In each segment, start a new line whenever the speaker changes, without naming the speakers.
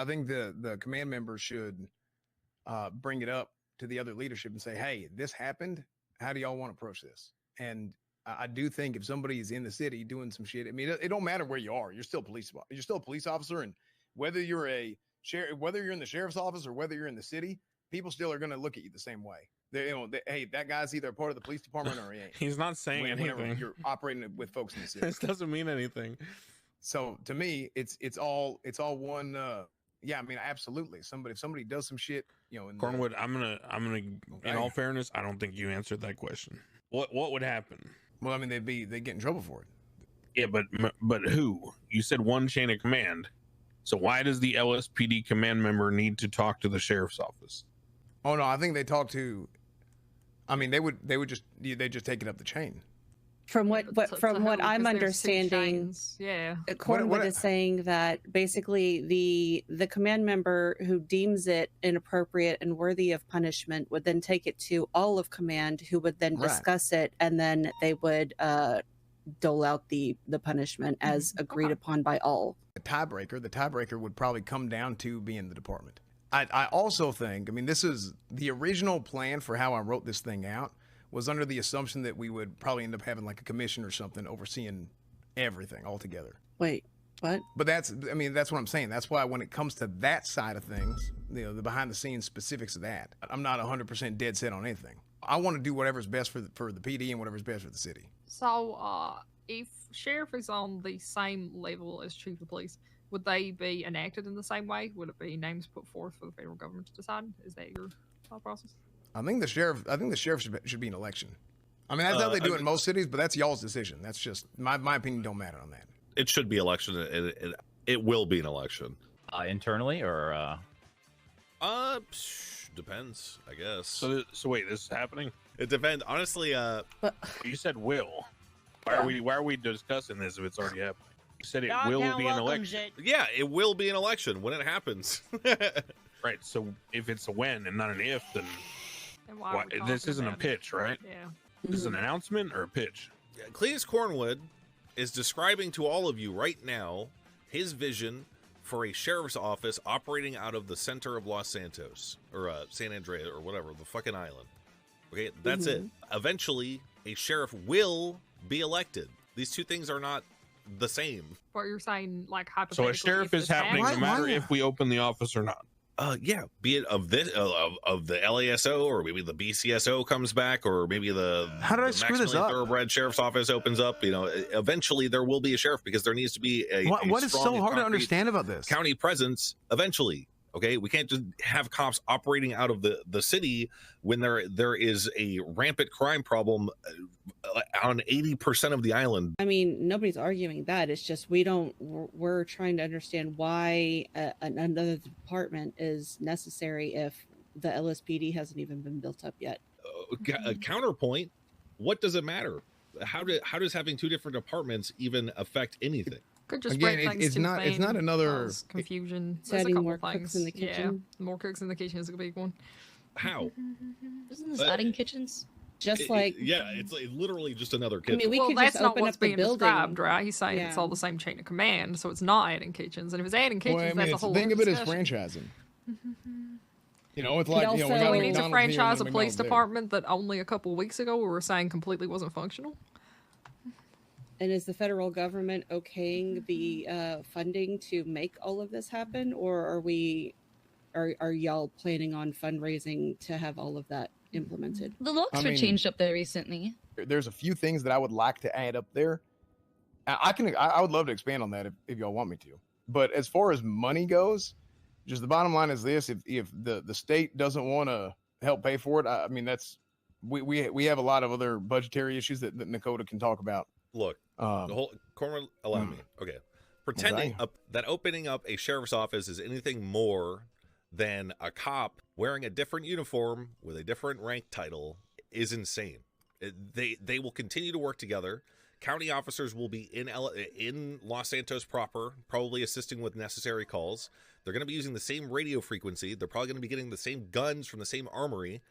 I think the the command member should uh, bring it up to the other leadership and say, "Hey, this happened. How do y'all want to approach this?" And I, I do think if somebody is in the city doing some shit, I mean, it, it don't matter where you are. You're still police. You're still a police officer, and whether you're a sheriff, whether you're in the sheriff's office or whether you're in the city, people still are going to look at you the same way. They, you know, they, hey, that guy's either a part of the police department or he ain't.
He's not saying
When- Whenever
anything.
you're operating with folks in the city,
this doesn't mean anything.
so to me it's it's all it's all one uh yeah i mean absolutely somebody if somebody does some shit you know in the-
Cornwood, I'm gonna, I'm gonna.
Okay.
In all fairness, I don't think you answered that question. What, what would happen?
well i mean they'd be they get in trouble for it
Yeah, but, but who? You said one chain of command. So why does the LSPD command member need to talk to the sheriff's office?
oh no i think they talk to i mean they would they would just they just take it up the chain
From what,
To-
what
to
from
who?
what
'Cause
I'm
there's two
understanding,
shines. Yeah.
uh,
What- what-
Cornwood is saying that basically the the command member who deems it inappropriate and worthy of punishment would then take it to all of command, who would then
Right.
discuss it, and then they would uh, dole out the the punishment as agreed
Mm-hmm. Okay.
upon by all.
the tiebreaker, the tiebreaker would probably come down to being the department. I, I also think, I mean, this is the original plan for how I wrote this thing out was under the assumption that we would probably end up having like a commission or something overseeing everything altogether.
Wait, what?
But that's, I mean, that's what I'm saying. That's why when it comes to that side of things, you know, the behind the scenes specifics of that, I'm not 100% dead set on anything. I want to do whatever's best for the, for the PD and whatever's best for the city.
So, uh, if sheriff is on the same level as chief of police, would they be enacted in the same way? Would it be names put forth for the federal government to decide? Is that your thought process?
I think the sheriff. I think the sheriff should be, should be an election. I mean, that's how
Uh,
they do
I-
it in most cities, but that's y'all's decision. That's just my my opinion. Don't matter on that.
It should be election. It, it, it will be an election.
Uh, internally or uh,
Uh, psh, depends, I guess.
So, so wait, this is happening.
it depends. Honestly, uh,
But
You said will. Why are we, why are we discussing this if it's already happening? You said it will be an election,
yeah, it will be an election when it happens.
right? So if it's a when and not an if, then
And why are
why,
we
this
talking
isn't a
about it?
pitch, right?
Yeah.
This is an announcement or a pitch.
Cletus Cornwood is describing to all of you right now his vision for a sheriff's office operating out of the center of Los Santos or uh, San Andreas or whatever, the fucking island. Okay, that's it. Eventually, a sheriff will be elected. These two things are not the same.
But you're saying, like, hypothetically.
So a sheriff
if
is
this
happening
happens-
no matter if we open the office or not.
Uh, yeah, be it of this uh, of, of the LASO or maybe the BCSO comes back or maybe the
How did
the
I screw this
Maximilian
up?
Thoroughbred Sheriff's Office opens up. You know, e, eventually there will be a sheriff because there needs to be a.
What,
a
what is
strong
so
and
hard to
concrete
understand about this?
County presence eventually. Okay, we can't just have cops operating out of the the city when there there is a rampant crime problem uh, on eighty percent of the island.
I mean, nobody's arguing that. It's just we don't. We're we're trying to understand why uh, an- another department is necessary if the LSPD hasn't even been built up yet.
Uh, ca- a
Mm-hmm.
counterpoint. What does it matter? How do how does having two different departments even affect anything?
Could just
Again,
break
it-
things
it's
too
not- it's
thin,
not another-
cause confusion.
It's
There's a
adding
couple
more
things.
cooks in the kitchen.
Yeah, more cooks in the kitchen is a big one.
How?
Isn't this
Uh,
adding kitchens?
Just
It- it-
Mm-hmm. like
yeah, it's like literally just another
I
kitchen.
mean, we
well,
could
that's
just
not
open
what's
up the
being
building.
described, right? He's saying it's
Yeah.
all the same chain of command, so it's not adding kitchens. And if it's adding kitchens, that's a whole
think of
other
it as
discussion.
franchising. You know, it's
It
like you know,
also-
got
So
Well,
we need to
McDonald's here
franchise a
and
police
McDonald's there.
department that only a couple weeks ago we were saying completely wasn't functional.
And is the federal government okaying the uh, funding to make all of this happen, or are we, are are y'all planning on fundraising to have all of that implemented?
The locks
I
were
mean-
changed up there recently.
There- There's a few things that I would like to add up there. I, I can I, I would love to expand on that if, if y'all want me to. But as far as money goes, just the bottom line is this: if if the the state doesn't want to help pay for it, I, I mean that's we, we we have a lot of other budgetary issues that, that Nakota can talk about.
Look, the
Um,
whole Cornwall, allow me. Okay, pretending
Okay.
up, that opening up a sheriff's office is anything more than a cop wearing a different uniform with a different rank title is insane. It- They they will continue to work together. County officers will be in L- in Los Santos proper, probably assisting with necessary calls. They're going to be using the same radio frequency. They're probably going to be getting the same guns from the same armory,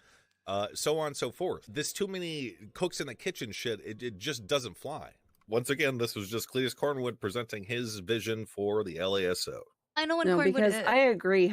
uh, so on and so forth. This too many cooks in the kitchen shit. It, it just doesn't fly. Once again, this was just Cletus Cornwood presenting his vision for the LASO.
I know what
no,
cordwood
because
is. uh,
I agree.